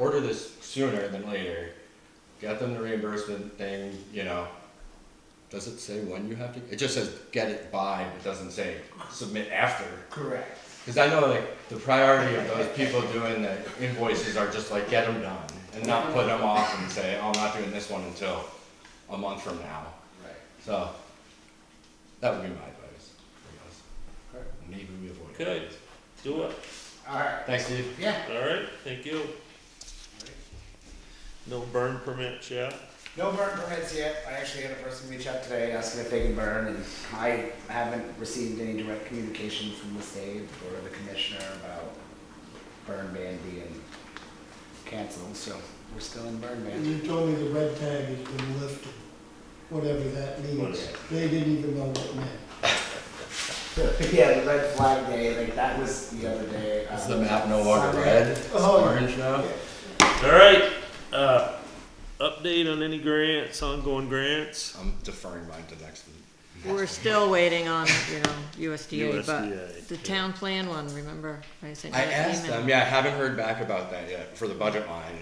over this sooner than later, get them the reimbursement thing, you know. Does it say when you have to? It just says get it by, it doesn't say submit after. Correct. Cause I know like the priority of those people doing the invoices are just like get them done and not put them off and say, oh, I'm not doing this one until a month from now. Right. So that would be my advice. I guess. Maybe we avoid. Could I do it? All right. Thanks, Steve. Yeah. All right, thank you. No burn permits yet? No burn permits yet. I actually had a person reach out today asking if they can burn, and I haven't received any direct communication from the state or the commissioner about burn ban being canceled. So we're still in burn And ban. you told me the red tag has been lifted, whatever that means. Whatever. They didn't even know what it meant. yeah, the red flag day. Like that was the other day. Is um, the map no longer Sunday. red? It's Oh. orange now? All right, uh, update on any grants, ongoing grants? I'm deferring mine to next week. We're still waiting on, you know, USDA, USDA, but the yeah. town plan one, remember? I sent you I that asked email. them, yeah, I haven't heard back about that yet for the budget line.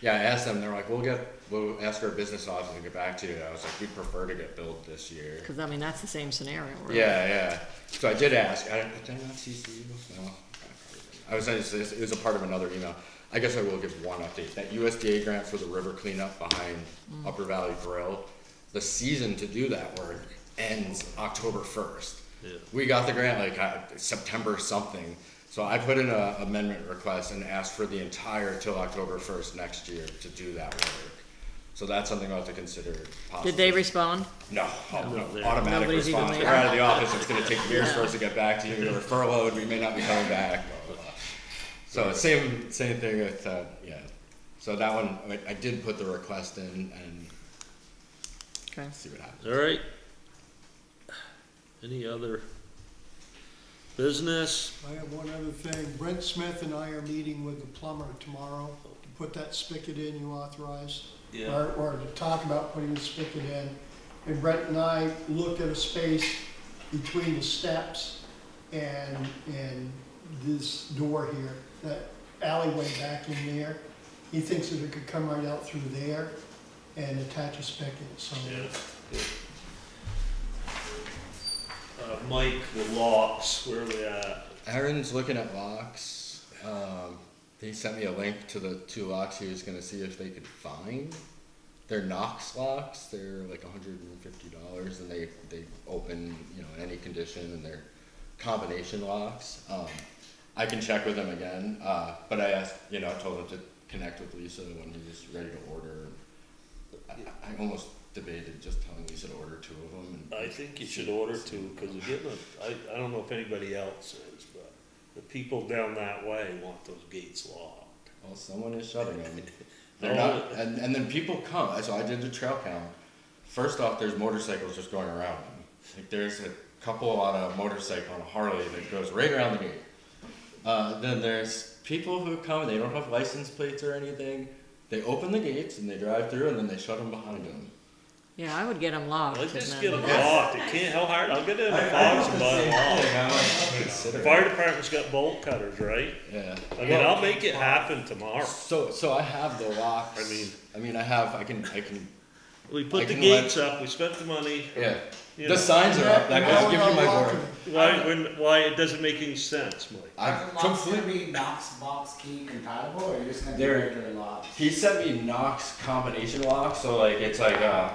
Yeah, I asked them, they're like, we'll get, we'll ask our business office to get back to you. I was like, we'd prefer to get billed this year. Cause I mean, that's the same scenario. really. Yeah, yeah. So I did ask, I, did I not CC you? No. I was, it was- it was a part of another email. I guess I will give one update. That USDA grant for the river cleanup behind Mm. Upper Valley Grill, the season to do that work ends October first. Yeah. We got the grant like uh, September something, so I put in a amendment request and asked for the entire till October first next year to do that work. So that's something I'll have to consider possibly. Did they respond? No, oh, No, no, they're- automatic Nobody's even response. We're there. out of the office. It's going to take years for us to get back to you. We're furloughed. We may not be coming back. Blah, blah, blah. So same same thing with uh, yeah. So that one I, I did put the request in and Okay. see what happens. All right. Any other business? I have one other thing. Brent Smith and I are meeting with the plumber tomorrow to put that spigot in you authorized. Or, or to talk about putting the spigot in. And Brent and I looked at a space between the steps and, and this door here, that alleyway back in there. He thinks that it could come right out through there and attach a spigot, so. Yeah. Uh, Mike, the locks, where we at? Aaron's looking at locks. Um, he sent me a link to the two locks he was going to see if they could find. They're Knox locks. They're like hundred and fifty dollars, and they they open you know in any condition, and they're combination locks. Um, I can check with him again, uh, but I asked you know I told him to connect with Lisa when he was ready to order. I, I almost debated just telling Lisa to order two of them. And I think you should order two, cause we're getting, a- I, I don't know if anybody else is, but the people down that way want those gates locked. Well, Oh, someone is shutting them. Oh. They're not, and, and then people come. So I did the trail count. First off, there's motorcycles just going around them. Like there's a couple on a motorcycle on a Harley that goes right around the gate. Uh, then there's people who come. They don't have license plates or anything. They open the gates and they drive through, and then they shut them behind them. Yeah, I would get them locked. Let's and just then- get them locked, it can't, how hard, I'll get it in a box and buy them locked. The Oh, fire department's got bolt cutters, right? Yeah. I mean, I'll make it happen tomorrow. So so I have the locks. I mean- I mean I have I can I can We I put the can let- gates up, we spent the money, yeah. you The know, signs are up. That Now goes we're give you not my locking word. it. why, when, why, it doesn't make any sense, Mike. Are I the locks completely. gonna be Knox box key compatible, or you're just gonna do They're- regular locks? He sent me Knox combination lock, so like it's like uh.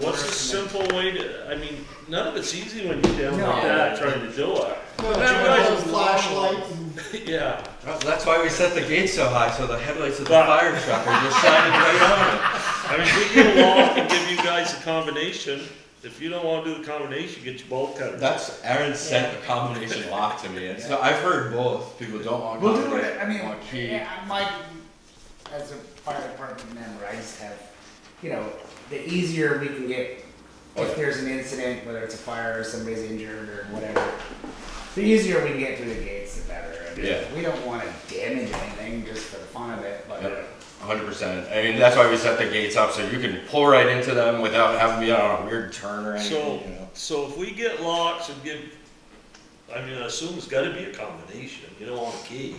What's the simple way to, I mean, none of it's easy when you're down like No. that trying to do it. No, That guy's it's a a flashlight and Yeah, That's why we set the gate so high, so the headlights of But- truck are just shining right on it. I mean, we get along and give you guys a combination. If you don't wanna do the combination, get your bolt cutters. That's Aaron sent the combination lock to me, and so I've heard both. People don't want. We'll do combination, it, I mean, want key. yeah, my, as a fire department member, I just have, you know, the easier we can get, Oh, yeah. if there's an incident, whether it's a fire or somebody's injured or whatever, the easier we can get through the gates, the better. I mean, Yeah. We don't wanna damage anything just for the fun of it, Yep, but, hundred percent. I mean, that's why we set the gates up so you can pull right into them without having to be on a weird turn or anything. So, you know? so if we get locks and give, I mean, I assume it's gotta be a combination, you don't want a key.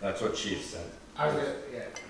That's what Chief said. I was, yeah,